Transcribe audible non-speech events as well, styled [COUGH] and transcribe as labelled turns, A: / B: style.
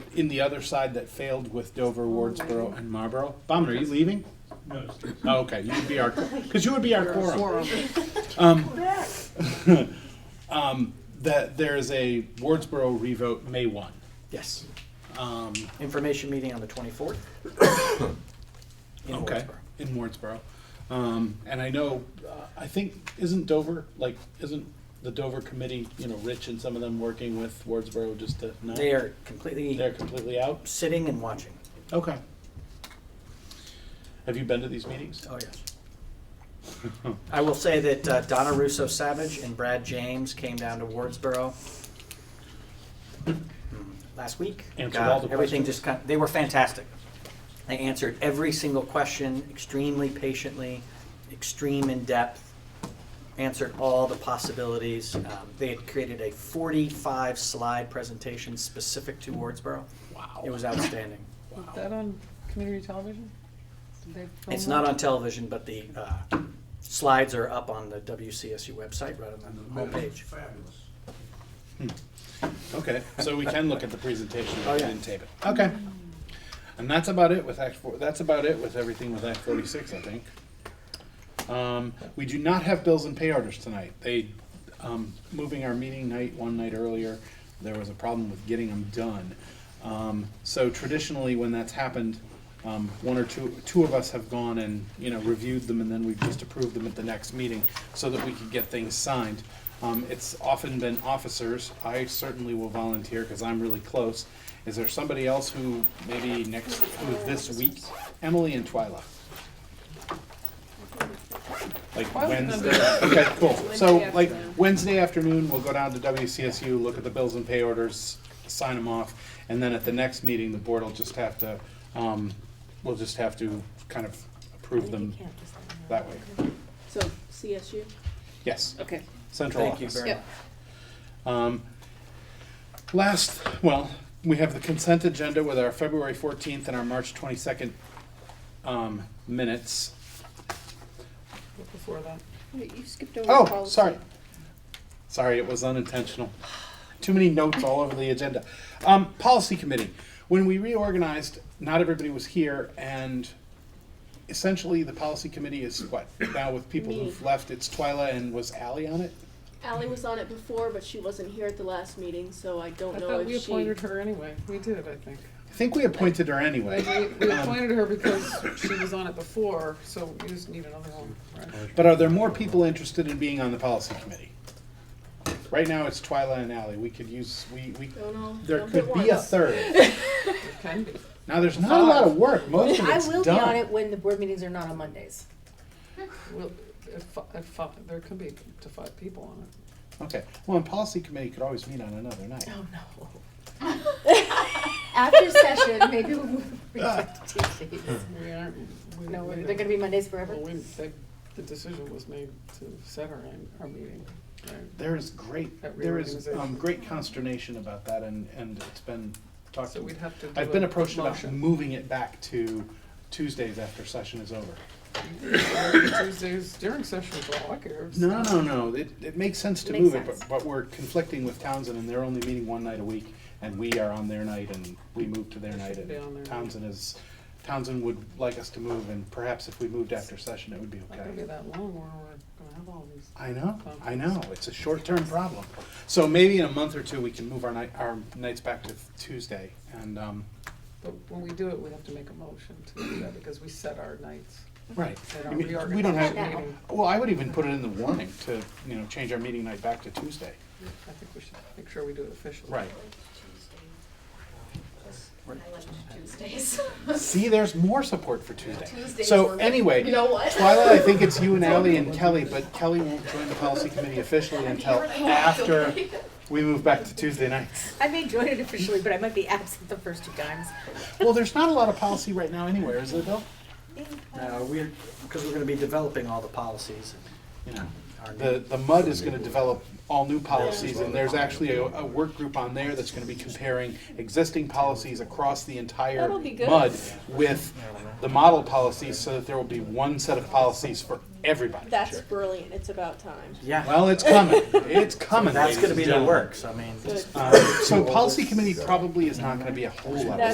A: in the other side that failed with Dover, Wardsboro, and Marlboro. Bauman, are you leaving?
B: No, it's-
A: Oh, okay, you would be our, because you would be our quorum. [LAUGHS] Um, That there is a Wardsboro revote May one.
C: Yes.
A: Um,
C: Information meeting on the 24th. In
A: Okay,
C: Wardsboro.
A: in Wardsboro. Um, and I know, uh, I think, isn't Dover, like, isn't the Dover committee, you know, Rich and some of them working with Wardsboro just to, no?
C: They are completely
A: They're completely out?
C: sitting and watching.
A: Okay. Have you been to these meetings?
C: Oh, yes. I will say that uh, Donna Russo Savage and Brad James came down to Wardsboro mm, last week.
A: Answered
C: God,
A: all the
C: Everything
A: questions?
C: just kind, they were fantastic. They answered every single question extremely patiently, extreme in depth, answered all the possibilities. Um, They had created a 45 slide presentation specific to Wardsboro.
A: Wow.
C: It was outstanding.
D: Is that on community television? Did they film
C: It's not
D: that?
C: on television, but the uh, slides are up on the WCSU website, right on the homepage.
A: Okay, so we can look at the presentation
C: Oh, yeah.
A: and tape it. Okay. And that's about it with Act Four, that's about it with everything with Act forty-six, I think. Um, we do not have bills and pay orders tonight. They, um, moving our meeting night one night earlier, there was a problem with getting them done. Um, so traditionally, when that's happened, um, one or two, two of us have gone and, you know, reviewed them and then we've just approved them at the next meeting so that we could get things signed. Um, it's often been officers. I certainly will volunteer because I'm really close. Is there somebody else who maybe next, who this week? Emily and Twyla. Like
D: Twyla's gonna
A: Wednesday.
D: do it.
A: Okay, cool. So
D: Wednesday
A: like
D: afternoon.
A: Wednesday afternoon, we'll go down to WCSU, look at the bills and pay orders, sign them off. And then at the next meeting, the board will just have to, um, we'll just have to kind of approve them that way.
E: So CSU?
A: Yes,
E: Okay.
A: central
C: Thank you
A: office.
C: very much.
E: Yep.
A: Um, last, well, we have the consent agenda with our February fourteenth and our March twenty-second, um, minutes.
D: Before that.
E: Wait, you skipped over
A: Oh,
E: policy.
A: sorry. Sorry, it was unintentional. Too many notes all over the agenda. Um, policy committee. When we reorganized, not everybody was here and essentially the policy committee is what? Now with people
E: Me.
A: who've left, it's Twyla and was Ally on it?
E: Ally was on it before, but she wasn't here at the last meeting, so I don't
D: I
E: know
D: thought
E: if she.
D: we appointed her anyway. We did, I think.
A: I think we appointed her anyway.
D: We, we
A: Um,
D: appointed her because she was on it before, so we just need another one, right?
A: But are there more people interested in being on the policy committee? Right now, it's Twyla and Ally. We could use, we, we,
E: Don't know.
A: there
E: Don't get
A: could be a
E: one.
A: third.
D: It can be.
A: Now, there's not a lot of work. Most of [LAUGHS]
F: I
A: it's
F: will be on
A: done.
F: it when the board meetings are not on Mondays.
D: We'll, if, fi- if, fi- there could be up to five people on it.
A: Okay. Well, and policy committee could always meet on another night.
F: Oh, no. After session, maybe we'll [LAUGHS] move back to Tuesdays.
D: We aren't, we.
F: No,
D: we
F: they're
D: didn't-
F: gonna be Mondays forever.
D: Well, we, they, the decision was made to set our, our meeting, right?
A: There is great,
D: That
A: there is um,
D: reorganization.
A: great consternation about that, and, and it's been talked.
D: So we'd have to do
A: I've been
D: a
A: approached about
D: motion.
A: moving it back to Tuesdays after session is over.
D: Tuesdays during session for all I care.
A: No, no, no, it, it makes sense to
F: Makes
A: move it, but,
F: sense.
A: but we're conflicting with Townsend, and they're only meeting one night a week, and we are on their night, and we move to their
D: They
A: night,
D: should be on their
A: and
D: night.
A: Townsend is, Townsend would like us to move, and perhaps if we moved after session, it would be
D: It's not gonna be
A: okay.
D: that long where we're gonna have all these.
A: I know, I know, it's a short-term problem. So maybe in a month or two, we can move our night, our nights back to Tuesday, and, um,
D: But when we do it, we have to make a motion to do that because we set our nights.
A: Right.
D: They
A: I
D: don't
A: mean, We don't have,
D: reorganize the meeting.
A: well, I would even put it in the warning to, you know, change our meeting night back to Tuesday.
D: I think we should make sure we do it officially.
G: Tuesdays.
A: See, there's more support for Tuesday.
G: Tuesdays
A: So
G: were-
A: anyway,
G: You know what?
A: Twyla, I think it's
G: [LAUGHS]
A: you and Ally and Kelly, but Kelly won't join the policy committee officially until after we move back to Tuesday nights.
F: I may join it officially, but I might be absent the first two times.
A: Well, there's not a lot of policy right now anywhere, is there, Bill?
C: Uh, we're, because we're gonna be developing all the policies.
A: You know,
C: our
A: The,
C: new-
A: the MUD is gonna develop all new policies, and there's actually a, a work group on there that's gonna be comparing existing policies across the entire
E: That'll be good.
A: MUD with the model policies, so that there will be one set of policies for everybody.
E: That's brilliant. It's about time.
C: Yeah,
A: Well, it's coming, it's coming,
C: that's
A: ladies
C: gonna
A: and
C: be the
A: gentlemen. Um,
C: works, I mean.
E: Good.
A: Uh, So policy committee probably is not gonna be a whole lot of
E: That's